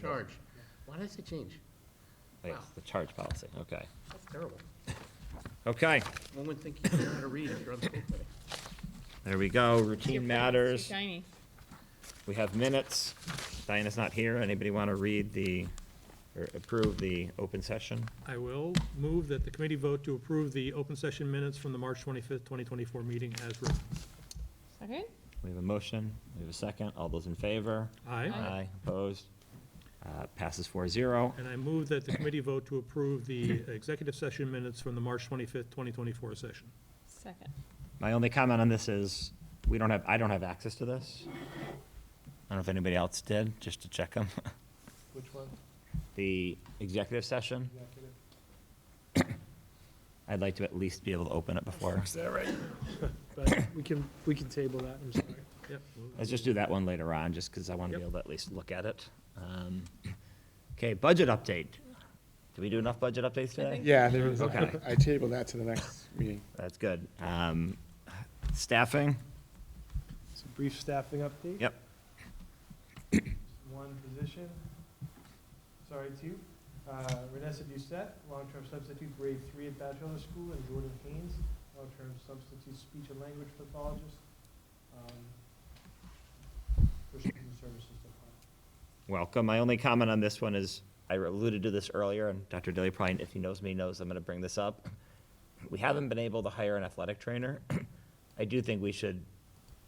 charge. Why does it change? Yes, the charge policy, okay. That's terrible. Okay, One would think you know how to read if you're on the school committee. there we go, Your routine pen's Too matters. shiny. We have minutes. Diana's not here. Anybody want to read the, or approve the open session? I will move that the committee vote to approve the open session minutes from the March 25th, 2024 meeting as written. Second? We have a motion, we have a second. All those in favor? Aye. Aye, opposed? Uh, Passes four zero. And I move that the committee vote to approve the executive session minutes from the March 25th, 2024 session. Second. My only comment on this is, we don't have, I don't have access to this. I don't know if anybody else did, just to check them. Which one? The executive session, Executive? I'd like to at least be able to open it before. But, We can, we can table that, I'm sorry. yep, we'll- Let's just do that one later on, just because I want to be Yep. able to at least look at it. Um, Okay, budget update. Did we do enough budget updates today? Yeah, there is, Okay. I tabled that to the next meeting. That's good. Um, Staffing? It's a brief staffing update. Yep. One position, sorry, two. Uh, Renessa Doucette, long-term substitute, grade three at Bachelor School, and Jordan Haynes, long-term substitute speech and language pathologist, um, for student services department. Welcome. My only comment on this one is, I alluded to this earlier, and Dr. Dilly probably, if he knows me, knows I'm going to bring this up. We haven't been able to hire an athletic trainer. I do think we should,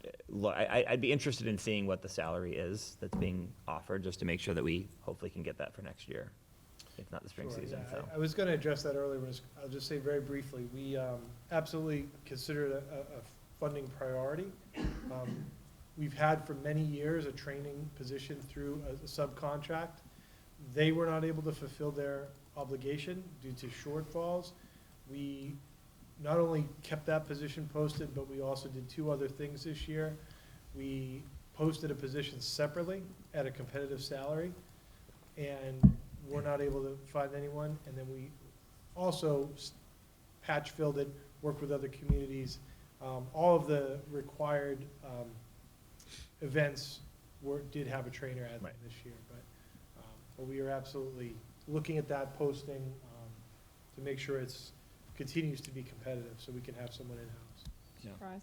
uh, look, I, I- I'd be interested in seeing what the salary is that's being offered, just to make sure that we hopefully can get that for next year, if not the spring Sure, season, yeah, so. I- I was going to address that earlier, was- I'll just say very briefly, we um, absolutely consider it a, a- a funding priority. Um, We've had for many years a training position through a a subcontract. They were not able to fulfill their obligation due to shortfalls. We not only kept that position posted, but we also did two other things this year. We posted a position separately at a competitive salary and we're not able to find anyone. And then we also s- patch filled it, worked with other communities. Um, all of the required, um, events were, did have a trainer at them Right. this year, but, um, but we are absolutely looking at that posting, um, to make sure it's, continues to be competitive, so we can have someone in-house. Surprise.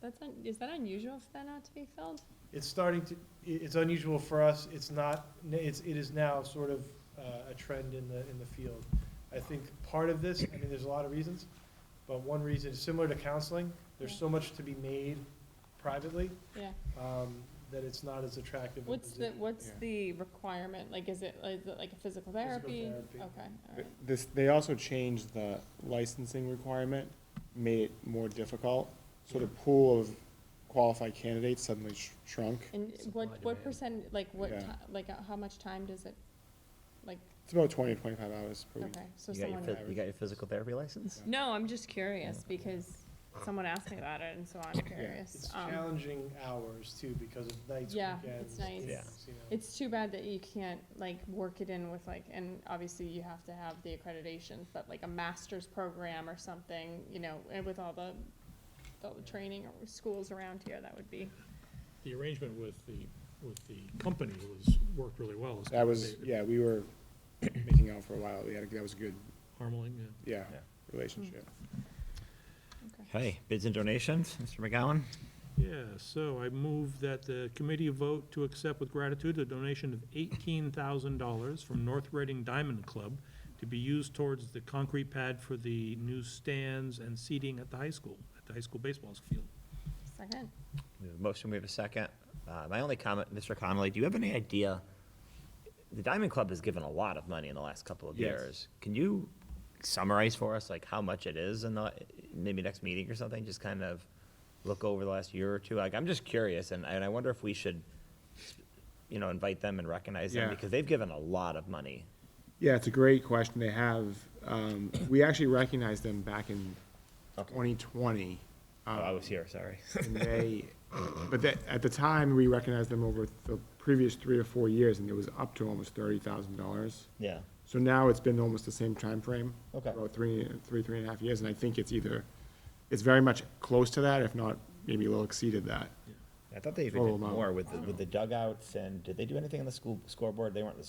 That's, un- is that unusual for that not to be filled? It's starting to, i- it's unusual for us, it's not, it's, it is now sort of uh, a trend in the, in the field. I think part of this, I mean, there's a lot of reasons, but one reason is similar to counseling, there's so much to be made privately, Yeah. um, that it's not as attractive. a What's the, position. what's Yeah. the requirement? Like, is it, is it like a physical therapy? therapy. Okay, all right. This, they also changed the licensing requirement, made it more difficult, so the pool of qualified candidates suddenly sh- shrunk. And Supply what, what demand. percent, like what, Yeah. ti- like uh, how much time does it, like, It's about twenty to twenty-five hours per week. okay, so You got your, someone. phys- you got your physical therapy license? No, I'm just curious because someone asked me about it and so I'm It's curious. Um, challenging hours too, because of nights, Yeah, weekends. it's nights. Yeah. you know. It's too bad that you can't like work it in with like, and obviously you have to have the accreditation, but like a master's program or something, you know, and with all the, all the training or schools around here, that would be. The arrangement with the, with the company was, worked really well. It's That was, they- yeah, we were making out for a while, we had, a- that was a good, Harmeling, yeah. yeah, Yeah. relationship. Hey, bids and donations, Mr. McGowan? Yeah, so I move that the committee vote to accept with gratitude a donation of eighteen thousand dollars from North Reading Diamond Club to be used towards the concrete pad for the new stands and seating at the high school, at the high school baseball field. Second, We have a motion, we have a second. Uh, My only comment, Mr. Connolly, do you have any idea? The Diamond Club has given a lot of money in the last couple of Yes. years. Can you summarize for us, like, how much it is in the, maybe next meeting or something? Just kind of look over the last year or two. Like, I'm just curious, and, and I wonder if we should, you know, invite them and recognize them, Yeah. because they've given a lot of money. Yeah, it's a great question they have. Um, we actually recognized them back in twenty twenty. Um, Oh, I was here, sorry. And they, but that, at the time, we recognized them over the previous three or four years, and it was up to almost thirty thousand dollars. Yeah. So now it's been almost the same time frame, Okay. About three, three, three and a half years, and I think it's either, it's very much close to that, if not, maybe a little exceeded that. I thought they even even did did Full amount. more more with, with the dugouts, and did they do anything on the school scoreboard? They weren't the